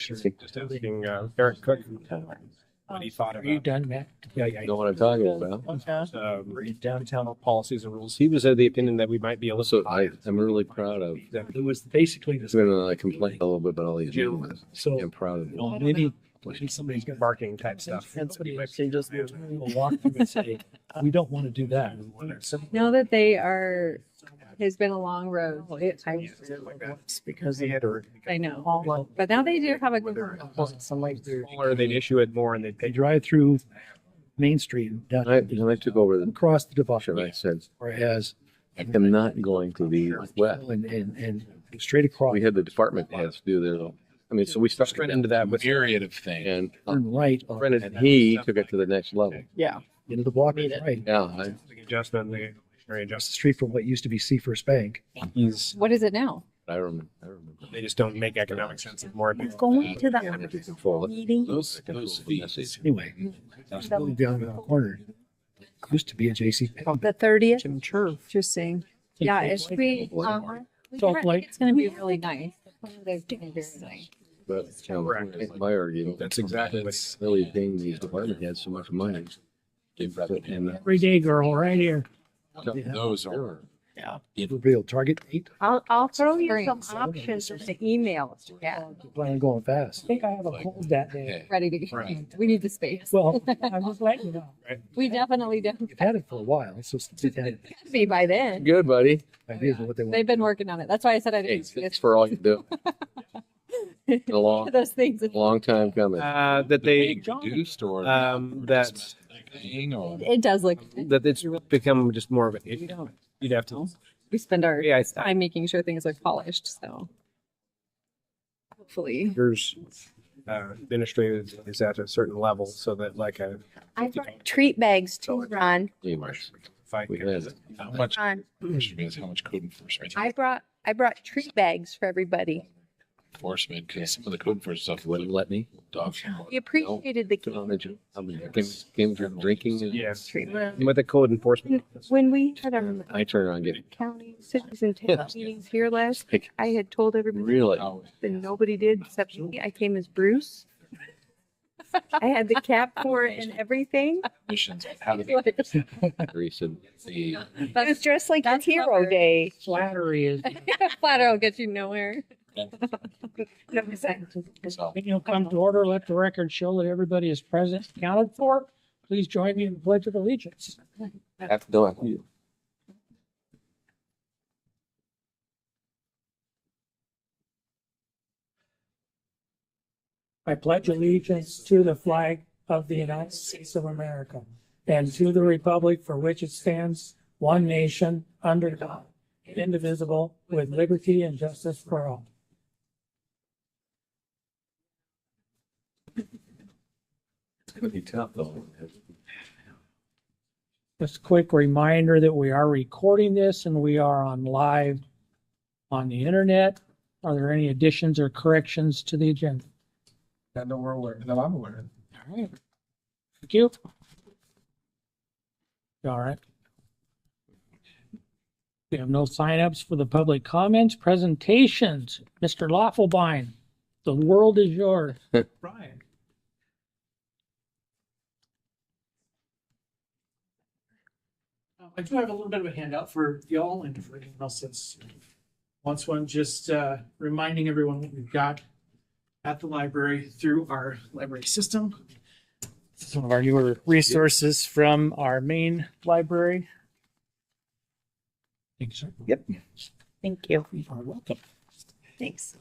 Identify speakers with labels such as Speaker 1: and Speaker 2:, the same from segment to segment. Speaker 1: Sure. Oh.
Speaker 2: Just asking uh, Eric Cook what he thought
Speaker 1: Are you
Speaker 2: about
Speaker 1: done, Matt? Yeah, yeah.
Speaker 3: You know what I'm talking about.
Speaker 1: Okay.
Speaker 2: um, downtown policies and rules. He was of the opinion that we might be a little.
Speaker 3: So I am really proud of,
Speaker 2: that
Speaker 1: It was basically this.
Speaker 3: even though I complained a little bit about all these meetings, I'm
Speaker 1: So um,
Speaker 3: proud of
Speaker 1: on any
Speaker 2: Somebody's got barking type stuff.
Speaker 1: somebody changes, we'll walk through and say, we don't want to do that. Some-
Speaker 4: Know that they are, has been a long road. It- I,
Speaker 2: Because they had or
Speaker 4: I know. But now they do have a good one.
Speaker 2: smaller, they'd issue it more and they'd
Speaker 1: They
Speaker 2: pay.
Speaker 1: drive through Main Street and down-
Speaker 3: I, and I took over the
Speaker 1: across the
Speaker 3: show. I
Speaker 1: divide,
Speaker 3: said,
Speaker 1: whereas
Speaker 3: I'm not going to the west.
Speaker 1: and, and, and straight across,
Speaker 3: We had the department heads do their, little- I mean, so we started
Speaker 2: Straight into that Mm-hmm. with
Speaker 5: myriad of things.
Speaker 3: And uh,
Speaker 1: turn right, on-
Speaker 3: Brennan, he took it to the next level.
Speaker 1: into the block, is right.
Speaker 3: Yeah, I,
Speaker 2: adjustment, the inflationary
Speaker 1: Across the
Speaker 2: adjustment.
Speaker 1: street from what used to be Sea First Bank.
Speaker 2: He's,
Speaker 4: What is it now?
Speaker 3: I remember, I remember.
Speaker 2: they just don't make economic sense anymore.
Speaker 6: Going to that
Speaker 3: I could control it.
Speaker 6: meeting,
Speaker 5: Those,
Speaker 3: I could
Speaker 5: those
Speaker 3: control the
Speaker 5: fees.
Speaker 3: message.
Speaker 1: Anyway, it's really down in the corner. Used to be a JC.
Speaker 4: Oh,
Speaker 6: the thirtieth,
Speaker 7: Jim Church.
Speaker 6: interesting.
Speaker 4: Yeah, it should be, um, we
Speaker 7: Salt
Speaker 4: heard
Speaker 7: Lake.
Speaker 4: it's gonna be really nice. They're gonna be very nice.
Speaker 3: But, you know, my argument,
Speaker 2: That's exactly what.
Speaker 5: That's-
Speaker 3: really paying these department heads so much money. And, uh,
Speaker 7: Every day girl, right here.
Speaker 5: Those are.
Speaker 1: Real target eight.
Speaker 6: I'll, I'll throw you some
Speaker 4: Experience.
Speaker 6: options in the email.
Speaker 4: Yeah,
Speaker 1: Plan on going fast.
Speaker 7: I think I have a cold that day.
Speaker 5: hey,
Speaker 4: ready to, go.
Speaker 5: Right.
Speaker 4: we need the space.
Speaker 7: Well, I'm just letting you know.
Speaker 4: We definitely don't
Speaker 1: You've had it for a while, so they've had
Speaker 4: be by then.
Speaker 3: Good, buddy.
Speaker 1: ideas of what they
Speaker 4: They've
Speaker 1: want.
Speaker 4: been working on it. That's why I said I
Speaker 3: Hey,
Speaker 4: didn't.
Speaker 3: thanks for all you do. Been A long,
Speaker 4: Those things.
Speaker 3: long time coming.
Speaker 2: Uh, that
Speaker 5: They
Speaker 2: they,
Speaker 5: reduced or.
Speaker 2: um, that,
Speaker 5: Thing or.
Speaker 4: It does look,
Speaker 2: that it's become just more of an issue. You'd have to,
Speaker 4: we spend our
Speaker 2: yeah, I-
Speaker 4: time making sure things look polished, so. Hopefully.
Speaker 2: there's uh, administrative is at a certain level so that like a
Speaker 6: I brought treat bags to Ron,
Speaker 3: Anyways,
Speaker 2: if I
Speaker 3: We had it.
Speaker 5: How much,
Speaker 6: Ron.
Speaker 5: question is how much code enforcement,
Speaker 6: I brought, I brought treat bags for everybody.
Speaker 5: enforcement, because some of the code enforcement stuff.
Speaker 3: wouldn't let me.
Speaker 5: dogs.
Speaker 6: You appreciated the
Speaker 3: Put on the ju- I mean, things came from drinking. and-
Speaker 2: yes
Speaker 6: treatment.
Speaker 2: with the code enforcement
Speaker 6: When we had our
Speaker 3: I turn around and get
Speaker 6: county cities and towns meetings here last,
Speaker 3: like,
Speaker 6: I had told everybody
Speaker 3: really.
Speaker 5: Oh.
Speaker 6: that nobody did except me. I came as Bruce. I had the cap for it and everything.
Speaker 5: Missions, how do they,
Speaker 4: That's
Speaker 3: recent.
Speaker 5: the,
Speaker 6: It was dressed like
Speaker 4: That's
Speaker 6: it's Hero
Speaker 4: clever.
Speaker 6: Day.
Speaker 7: Flattery is,
Speaker 4: Flatter will get you nowhere.
Speaker 6: No, it's not.
Speaker 5: so,
Speaker 7: when you come to order, let the record show that everybody is present, and counted for. Please join me in the pledge of allegiance.
Speaker 3: After, no, after you.
Speaker 7: I pledge allegiance to the flag of the United States of America and to the republic for which it stands, one nation, under God, indivisible, with liberty and justice for all.
Speaker 3: It's gonna be tough though.
Speaker 7: Just a quick reminder that we are recording this and we are on live on the internet. Are there any additions or corrections to the agenda?
Speaker 2: that no we're aware that I'm aware of.
Speaker 7: All right. Thank you. All right. We have no signups for the public comments, presentations. Mr. Loffelbein, the world is yours.
Speaker 2: Brian.
Speaker 8: Uh, I do have a little bit of a handout for y'all and for anyone else that's wants one, just uh, reminding everyone what we've got at the library through our library system. Some of our newer resources from our main library.
Speaker 7: Thank you, sir.
Speaker 6: Thank you.
Speaker 8: You are welcome.
Speaker 6: Thanks.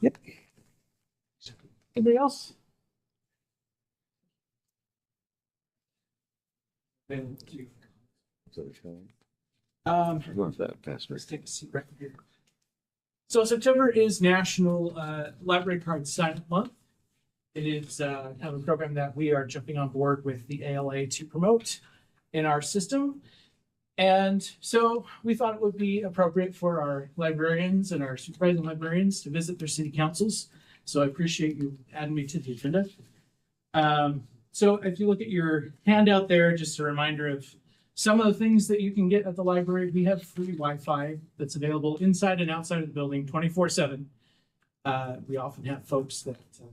Speaker 8: Anybody else? Then you. Um,
Speaker 3: I want that faster.
Speaker 8: Let's take a seat right here. So September is National uh, Library Card Sign Up Month. It is uh, kind of a program that we are jumping on board with the ALA to promote in our system. And so we thought it would be appropriate for our librarians and our supervising librarians to visit their city councils. So I appreciate you adding me to the agenda. Um, so if you look at your handout there, just a reminder of some of the things that you can get at the library, we have free Wi-Fi that's available inside and outside of the building, twenty-four seven. Uh, we often have folks that uh,